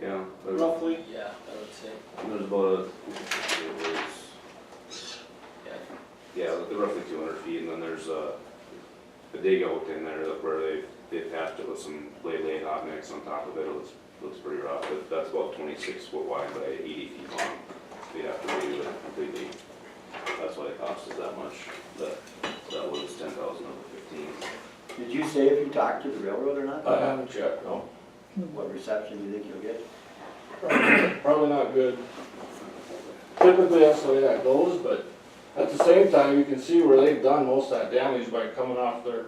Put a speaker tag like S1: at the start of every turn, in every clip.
S1: There's-
S2: roughly?
S3: Yeah, I would say,
S1: There's about a, it was,
S3: yeah.
S1: yeah, roughly two hundred feet, and then there's a, a dig out in there that where they, they patched it with some lay laid hot mix on top of it, it looks, looks pretty rough, but that's about twenty-six foot wide by eighty feet long. We'd have to redo it completely, that's why it costs us that much, that, that was ten thousand over fifteen.
S4: Did you say if you talked to the railroad or not?
S5: I haven't checked, no.
S4: What reception do you think you'll get?
S5: Probably not good. Typically, that's the way that goes, but at the same time, you can see where they've done most of that damage by coming off their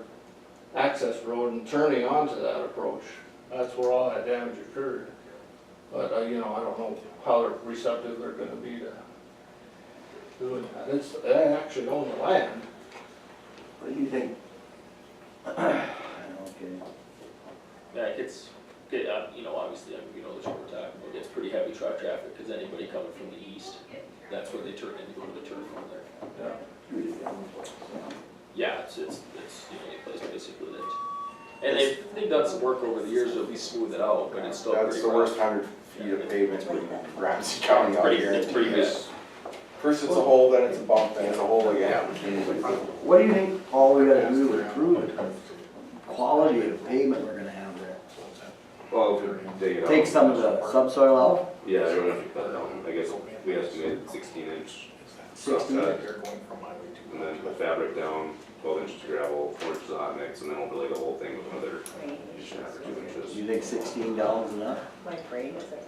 S5: access road and turning onto that approach. That's where all that damage occurred. But, uh, you know, I don't know how they're- receptive they're gonna be to doing that. It's, they actually own the land.
S4: What do you think? Okay.
S3: Yeah, it gets, get- uh, you know, obviously, I mean, you know, the short time, it gets pretty heavy truck traffic, because anybody coming from the east, that's where they turn in, to go to the turn from there. Yeah, it's, it's, it's the only place basically that, and they've, they've done some work over the years to at least smooth it out, but it's still pretty rough.
S6: That's the worst hundred feet of pavement in Ramsey County out
S3: Pretty,
S6: here.
S3: it's pretty
S6: It's-
S3: bad.
S6: First it's a hole, then it's a bump, then it's a hole again.
S1: Uh,
S4: What do you think, Paul, we gotta do to improve the quality of pavement we're gonna have there?
S1: Well, if we dig it out.
S4: Take some of the subsoil out,
S1: Yeah, I don't know if you cut down, I guess we estimated sixteen inch stuff uh,
S4: Sixteen?
S1: cut, and then the fabric down, twelve inches of gravel, four inches of hot mix, and then overlay the whole thing with another inch and a half or two
S4: do
S1: inches.
S4: you think sixteen gallons enough?
S7: My brain is like.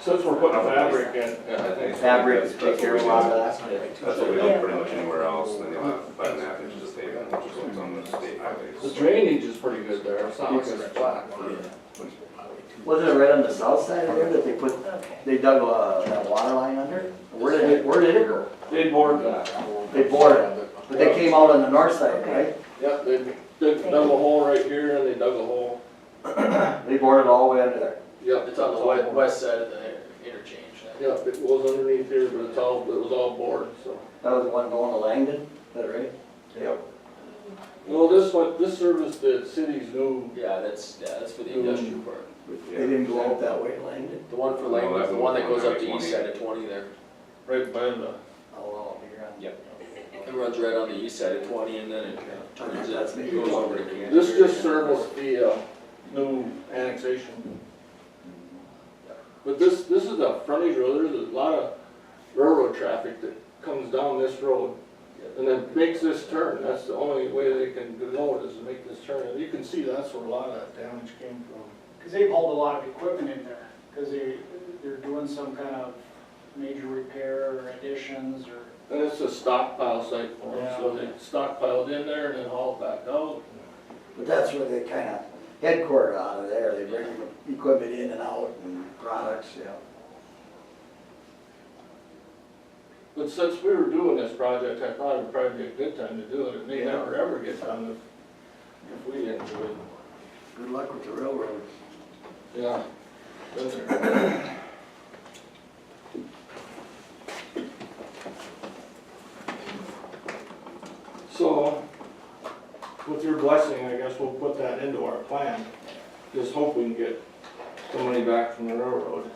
S5: Since we're putting fabric in,
S1: Yeah, I think-
S4: Fabric, take care of a lot of that.
S1: That's what we do pretty much anywhere else, and then you'll have five and a half inches of pavement, which is what's on the state
S5: the
S1: highways.
S5: drainage is pretty good there. It's not like it's flat.
S4: Wasn't it right on the south side of there that they put, they dug a, that water line under? Where did it, where did it go?
S5: They bored that.
S4: They bored it, but they came out on the north side, right?
S5: Yep, they, they dug a hole right here and they dug a hole.
S4: They bored it all the way under there.
S5: Yep,
S3: It's on the west, west side of the interchange, I think.
S5: Yep, it was underneath here, but it's all, it was all bored, so.
S4: That was the one going to Langdon, is that right? Yep.
S5: Well, this one, this service, the city's new,
S3: yeah, that's, yeah, that's for the industrial part.
S4: They didn't go out that way, Langdon.
S3: The one for
S6: Oh,
S1: No,
S3: Langdon,
S1: that's
S3: the one that goes up
S1: the
S3: to
S1: one
S3: east
S1: that
S3: side of twenty there,
S5: right by
S4: Oh,
S5: the,
S4: well, here on.
S3: Yep. it runs right on the east side of twenty, and then it turns it,
S4: That's me.
S3: goes over to Kansas.
S5: this just serviced the, uh, new annexation. But this, this is a frontage road, there's a lot of railroad traffic that comes down this road and then makes this turn, that's the only way they can denote is to make this turn. And you can see that's where a lot of that damage came from.
S8: Because they've hauled a lot of equipment in there, because they, they're doing some kind of major repair or additions or.
S5: And it's a stockpile site for them, so they stockpiled in there and then hauled back out.
S4: But that's where they kind of headquarter out of there, they bring equipment in and out and products, yeah.
S5: But since we were doing this project, I thought it would probably be a good time to do it, it may never ever get done if, if we didn't do it.
S4: Good luck with the railroad.
S5: Yeah. Been there. So, with your blessing, I guess we'll put that into our plan, just hope we can get the money back from the railroad.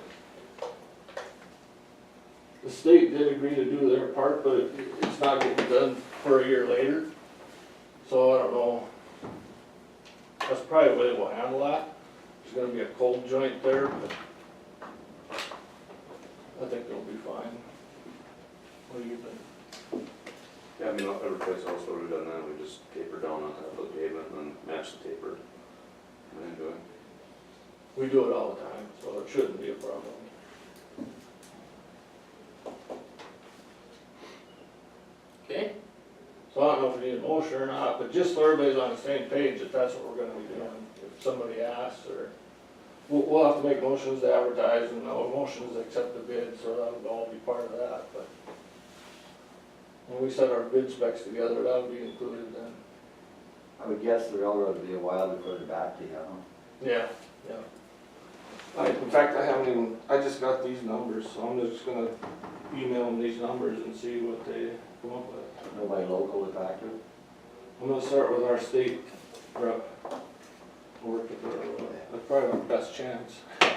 S5: The state did agree to do their part, but it- it's not getting done for a year later, so I don't know. That's probably the way we'll handle that. There's gonna be a cold joint there, but I think it'll be fine. What do you think?
S1: Yeah, I mean, every place else where we've done that, we just taper down on top of the pavement and match the taper. And then do it.
S5: We do it all the time, so it shouldn't be a problem.
S3: Okay,
S5: So I don't know if we need a motion or not, but just so everybody's on the same page, if that's what we're gonna be doing, if somebody asks or. We'll, we'll have to make motions to advertise and no motions to accept the bid, so that would all be part of that, but. When we set our bid specs together, that would be included then.
S4: I would guess the railroad would be a while to put it back to you, huh?
S5: Yeah, yeah. I, in fact, I haven't even, I just got these numbers, so I'm just gonna email them these numbers and see what they come up with.
S4: Nobody local to talk to?
S5: I'm gonna start with our uh, state rep. Work with her, that's probably my best chance.